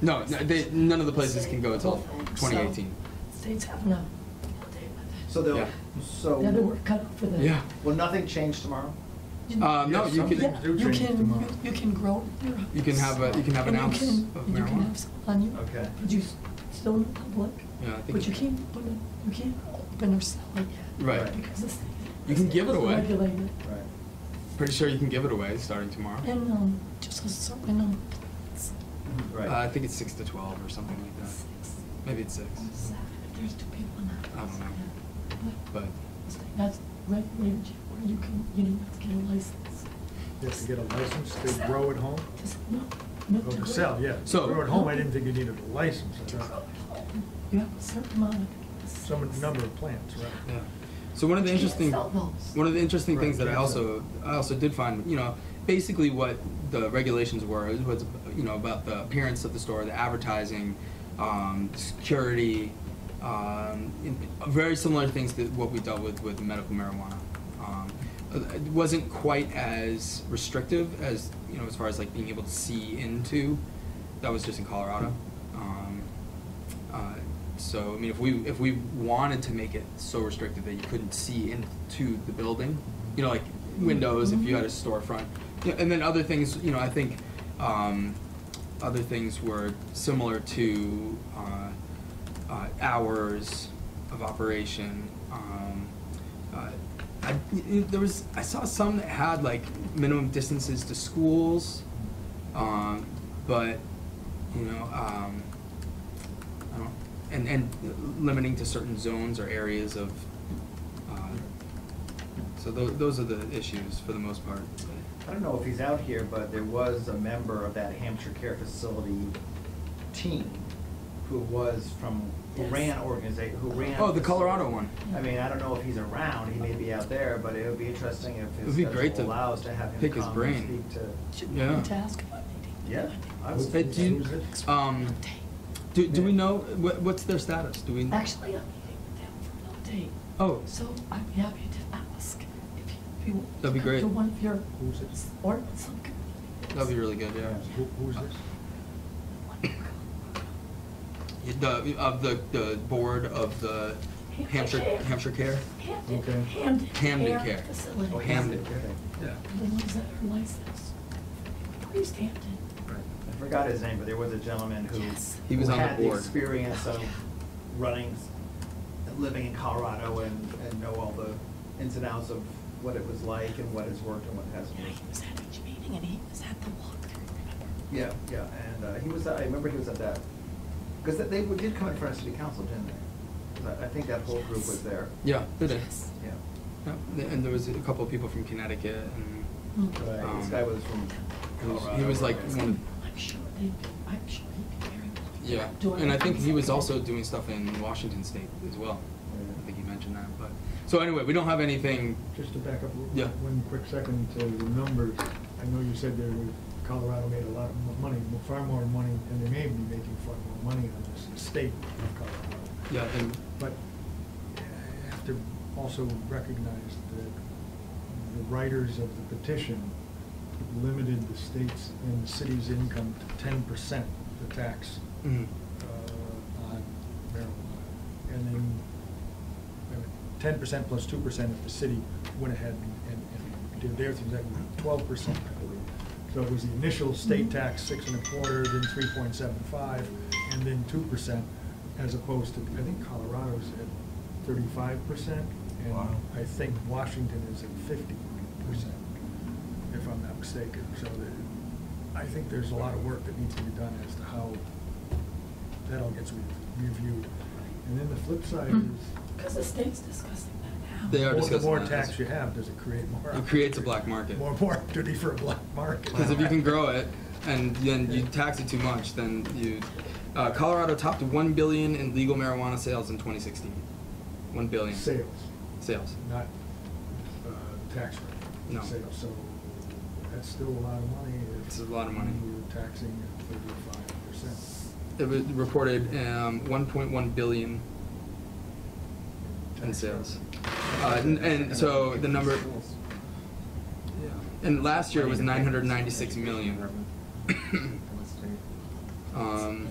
No, no they, none of the places can go until 2018. States have no date So they'll, Yeah. so, with it. Now that we're cut off for that. Yeah. will nothing change tomorrow? Uh, no, Yes, you can, Yeah, do you change can, tomorrow. you- you can grow your house. you can have a, you can have an And ounce you of can- and You can have marijuana. some on you. Okay. But you s- still in public, Yeah, I think. but you can't, open it- you can't open or sell it yet. Right. Because it's. You can give it away. Regulated. Right. Pretty sure you can give it away starting tomorrow. And, um, just a certain, um, it's Mm-hmm. Uh, I think it's six to twelve or something like that. six Maybe it's six, or seven, if there's two people in that I don't house. know. yeah. But but it's like, that's regulated, where you can, you don't have to get a license. You have to get a license to grow at home? Just, no, no. Oh, to to grow. sell, yeah. So- Grow at home, I didn't think you needed a license. I To grow thought at home, you have a certain amount of. Some number of plants, right? yeah. So one of the You can't interesting, sell those. one of the interesting Right, things that I exactly. also I also did find, you know, basically what the regulations were it was, you know, about the appearance of the store, the advertising, um, security, um, in, very similar things to what we dealt with with medical marijuana. Um, it wasn't quite as restrictive as you know, as far as like being able to see into. That was just in Colorado. Um, Uh, So, I mean, if we, if we wanted to make it so restricted that you couldn't see into the building, you know, like windows, if you had a storefront. Yeah, And then other things, you know, I think, um, other things were similar to, uh, uh, hours of operation. Um, uh, I, there was, I saw some that had like minimum distances to schools, um, but, you know, um, I don't, and, and limiting to certain zones or areas of, uh, so tho- those are the issues for the most part. I don't know if he's out here, but there was a member of that Hampshire Care Facility team who was from, who Yes. ran organization, who ran. Oh, the facility. Colorado one. I mean, I don't know if he's around, he may be out there, but it would be interesting if his It'd be great schedule to allows to have him pick his come and brain. speak to. Should we Yeah. need to ask about meeting? Yeah, I Who's- was, Hey, do you- who's it? Um, do, do we know, what, what's their status? Do we? Actually, I'm meeting with them for another date, Oh, so I'd be happy to ask if you, if you want. to That'd be come great. To one of your, Who's it? or some community. that'd be really good, yeah. Who, who's this? Yeah, The, of the, the board of the Hampshire, Hampshire Care? Hamden, Okay. Hamden. Hamden Care. Facility. oh, Hamden. Hamden, okay. Yeah. The ones that are licensed. Please, Hamden. I forgot his name, but there was a gentleman who. Yes. He was who on the board. had the experience of Yeah. running, living in Colorado and, and know all the ins and outs of what it was like and what has worked and what hasn't Yeah, he worked. was at each meeting and he was at the walkthrough, remember? Yeah, yeah, and uh, he was, I remember he was at that, because they would- did come in front of city council, didn't they? 'Cause I, I think that whole group was there, Yeah, it is. Yes. yeah. Yeah, And there was a couple of people from Connecticut and Mm. Right, Um, This guy was from he was- Colorado. he was like right? one of I'm sure they, I'm sure he'd be very. Yeah, and I think he was also doing stuff in Washington State as well. I think he mentioned that, but, so anyway, we don't have anything, Just to back up w- Yeah. one quick second to the numbers, I know you said there were, Colorado made a lot of mo- money, mo- far more money, and they may be making far more money on this estate of Colorado. yeah, and, But I have to also recognize that the writers of the petition limited the state's and the city's income to ten percent the tax mm, uh, on marijuana. And then ten percent plus two percent if the city went ahead and, and did their thing, that would be twelve percent, I believe. So it was the initial state tax, six and a quarter, then three point seven five, and then two percent, as opposed to, I think Colorado's at thirty-five percent, and Wow. I think Washington is at fifty percent, if I'm not mistaken. So the- I think there's a lot of work that needs to be done as to how that all gets re- reviewed. And then the flip side Mm-hmm. is, Because the state's discussing that now. They are more- discussing The more that. tax you have, does it create more? it creates a opportunity? black market. More, more opportunity for a black market. Because if you can grow it and then you tax it too much, then you, uh, Colorado topped one billion in legal marijuana sales in twenty sixteen. One billion. Sales, Sales. not uh, tax rate. No. Sales, so that's still a lot of money. if It's a lot of money. You're taxing at thirty-five percent. It was reported, um, one point one billion in sales. Uh, and, and so the number, and last year it was nine hundred ninety-six million. Um,